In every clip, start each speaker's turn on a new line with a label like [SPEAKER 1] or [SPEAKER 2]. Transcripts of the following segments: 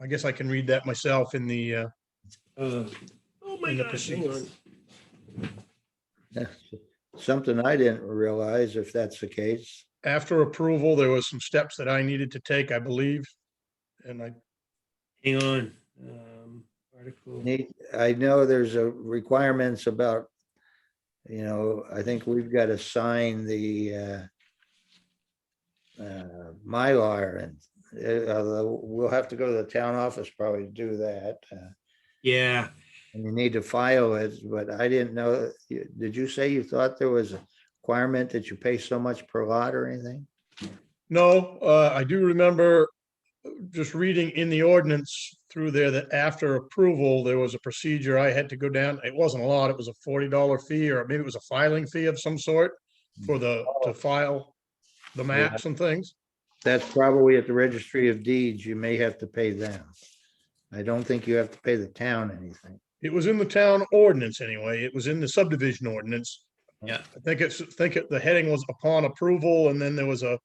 [SPEAKER 1] I guess I can read that myself in the, uh,
[SPEAKER 2] Uh, Oh, my
[SPEAKER 1] In the
[SPEAKER 2] gosh, hang on.
[SPEAKER 1] proceedings.
[SPEAKER 3] Something I didn't realize, if that's the case.
[SPEAKER 1] after approval, there was some steps that I needed to take, I believe. And I,
[SPEAKER 2] Hang on. Um, Article,
[SPEAKER 3] Need- I know there's a requirements about, you know, I think we've got to sign the uh, uh, Mylar and uh, although we'll have to go to the town office probably to do that. uh,
[SPEAKER 2] yeah,
[SPEAKER 3] And you need to file it, but I didn't know, you- did you say you thought there was a requirement that you pay so much per lot or anything?
[SPEAKER 1] no, uh, I do remember just reading in the ordinance through there that after approval, there was a procedure I had to go down. It wasn't a lot. It was a forty dollar fee or maybe it was a filing fee of some sort for the, to file the maps and things.
[SPEAKER 3] That's probably at the registry of deeds. You may have to pay them. I don't think you have to pay the town anything.
[SPEAKER 1] It was in the town ordinance anyway. It was in the subdivision ordinance.
[SPEAKER 2] Yeah.
[SPEAKER 1] I think it's, I think it- the heading was upon approval and then there was a,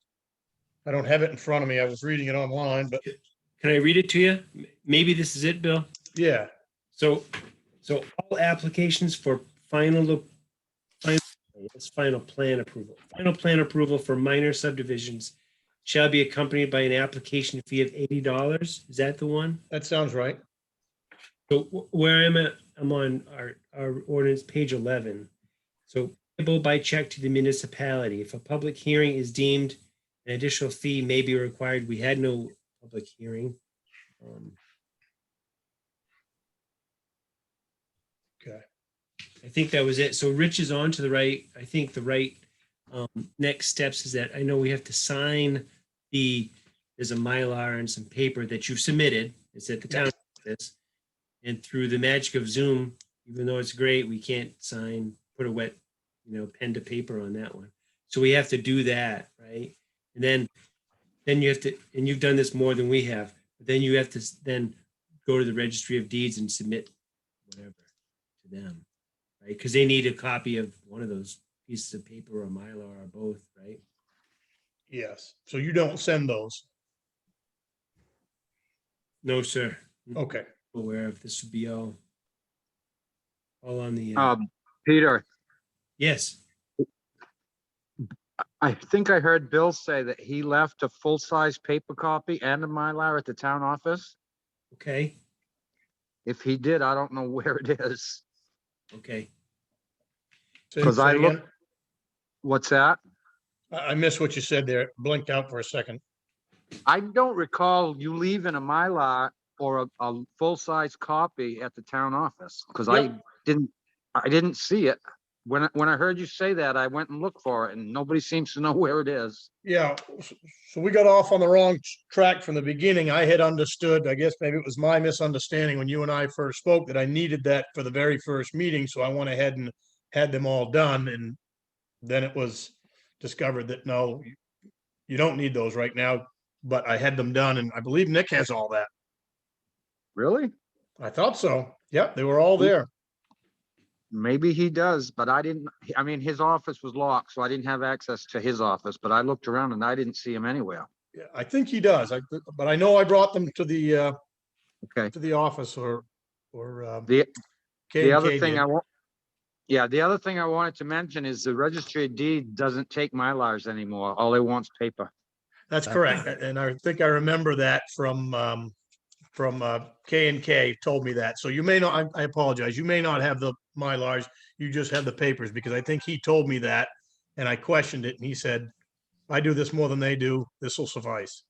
[SPEAKER 1] I don't have it in front of me. I was reading it online, but
[SPEAKER 2] can I read it to you? M- Maybe this is it, Bill?
[SPEAKER 1] yeah.
[SPEAKER 2] So, so all applications for final, final, it's final plan approval. Final plan approval for minor subdivisions shall be accompanied by an application fee of eighty dollars. Is that the one?
[SPEAKER 1] That sounds right.
[SPEAKER 2] So wh- where I'm at, I'm on our, our ordinance, page eleven. So payable by check to the municipality. If a public hearing is deemed, an additional fee may be required. We had no public hearing. Um,
[SPEAKER 1] Okay.
[SPEAKER 2] I think that was it. So Rich is on to the right. I think the right um, next steps is that I know we have to sign the, there's a Mylar and some paper that you've submitted. It's at the town office. And through the magic of Zoom, even though it's great, we can't sign, put a wet, you know, pen to paper on that one. So we have to do that, right? And then, then you have to, and you've done this more than we have, but then you have to s- then go to the registry of deeds and submit whatever to them, right? Because they need a copy of one of those pieces of paper or Mylar or both, right?
[SPEAKER 1] Yes. So you don't send those.
[SPEAKER 2] No, sir.
[SPEAKER 1] Okay.
[SPEAKER 2] Aware of this would be all. All on the, uh,
[SPEAKER 4] Um, Peter,
[SPEAKER 2] yes,
[SPEAKER 4] I think I heard Bill say that he left a full-size paper copy and a Mylar at the town office.
[SPEAKER 2] okay,
[SPEAKER 4] If he did, I don't know where it is.
[SPEAKER 2] okay.
[SPEAKER 1] Say-
[SPEAKER 4] 'Cause I
[SPEAKER 1] say
[SPEAKER 4] look-
[SPEAKER 1] again.
[SPEAKER 4] What's that?
[SPEAKER 1] I, I missed what you said there. It Blinked out for a second.
[SPEAKER 4] I don't recall you leaving a Mylar or a, a full-size copy at the town office, because I didn't, I didn't see it. When, I- when I heard you say that, I went and looked for it and nobody seems to know where it is.
[SPEAKER 1] Yeah. s- So we got off on the wrong t- track from the beginning. I had understood, I guess maybe it was my misunderstanding when you and I first spoke that I needed that for the very first meeting. So I went ahead and had them all done and then it was discovered that no, you- you don't need those right now, but I had them done and I believe Nick has all that.
[SPEAKER 4] Really?
[SPEAKER 1] I thought so. Yep, they were all there.
[SPEAKER 4] Maybe he does, but I didn't, I mean, his office was locked, so I didn't have access to his office, but I looked around and I didn't see him anywhere.
[SPEAKER 1] Yeah, I think he does, I, but I know I brought them to the, uh,
[SPEAKER 4] Okay.
[SPEAKER 1] to the office or, or, um.
[SPEAKER 4] The- The
[SPEAKER 1] K&K
[SPEAKER 4] other thing
[SPEAKER 1] did.
[SPEAKER 4] I want, yeah, the other thing I wanted to mention is the registry of deed doesn't take Mylars anymore. All they want's paper.
[SPEAKER 1] That's
[SPEAKER 2] Uh,
[SPEAKER 1] correct. a- And I think I remember that from, um, from, uh, K and K told me that. So you may not, I, I apologize. You may not have the Mylars. You just have the papers because I think he told me that and I questioned it and he said, I do this more than they do. This will suffice.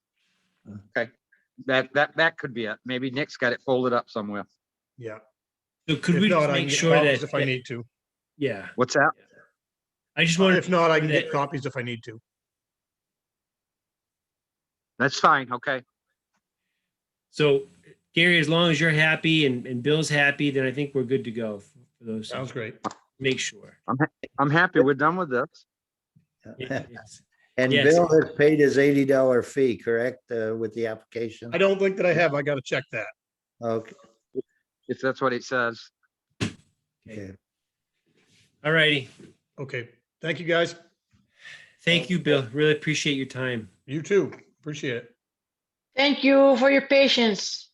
[SPEAKER 4] That, that, that could be it. Maybe Nick's got it folded up somewhere.
[SPEAKER 1] Yeah.
[SPEAKER 2] So could
[SPEAKER 1] If
[SPEAKER 2] we
[SPEAKER 1] not,
[SPEAKER 2] just
[SPEAKER 1] I can
[SPEAKER 2] make
[SPEAKER 1] get
[SPEAKER 2] sure
[SPEAKER 1] copies
[SPEAKER 2] that,
[SPEAKER 1] If I need to,
[SPEAKER 2] yeah,
[SPEAKER 4] What's that?
[SPEAKER 2] I just wanted.
[SPEAKER 1] if not, I can get
[SPEAKER 2] that-
[SPEAKER 1] copies if I need to.
[SPEAKER 4] That's fine. Okay.
[SPEAKER 2] So Gary, as long as you're happy and, and Bill's happy, then I think we're good to go for for those.
[SPEAKER 1] Sounds great.
[SPEAKER 2] Make sure.
[SPEAKER 4] I'm happy. We're done with this.
[SPEAKER 2] Yes.
[SPEAKER 3] And
[SPEAKER 2] Yes.
[SPEAKER 3] Bill has paid his eighty dollar fee, correct, uh, with the application?
[SPEAKER 1] I don't think that I have. I gotta check that.
[SPEAKER 3] Okay,
[SPEAKER 4] If that's what it says.
[SPEAKER 2] Okay.
[SPEAKER 3] okay.
[SPEAKER 2] All righty.
[SPEAKER 1] Okay. Thank you, guys.
[SPEAKER 2] Thank you, Bill. Really appreciate your time.
[SPEAKER 1] You too. Appreciate it.
[SPEAKER 5] Thank you for your patience.